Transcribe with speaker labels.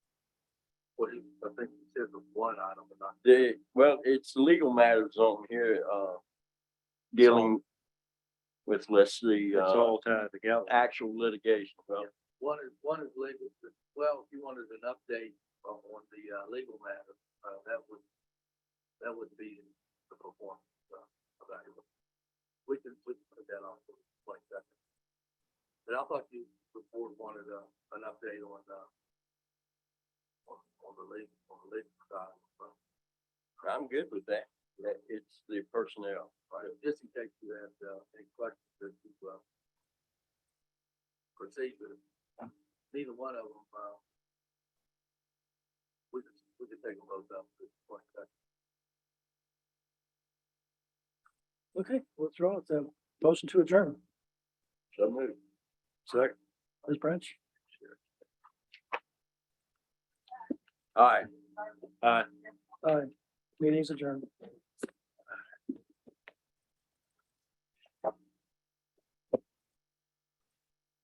Speaker 1: what he, I think he said was one item, but not.
Speaker 2: The, well, it's legal matters on here, uh, dealing with, let's see, uh,
Speaker 3: tied together.
Speaker 2: actual litigation. Well,
Speaker 1: One is, one is legal, well, if you wanted an update on on the uh, legal matter, uh, that would, that would be the performance uh, evaluation. We can, we can put that on for twenty seconds. But I thought you, the board wanted uh, an update on, uh, on, on the legal, on the legal side. so,
Speaker 2: I'm good with that. That it's the personnel.
Speaker 1: right, Just in case you had uh, any questions that you, uh, proceed with, neither one of them, uh, we could, we could take them both up at this point.
Speaker 3: Okay, let's roll it then. Motion to adjourn.
Speaker 2: So move.
Speaker 3: Second. Ms. Branch?
Speaker 2: All right.
Speaker 3: Aye. Meeting's adjourned.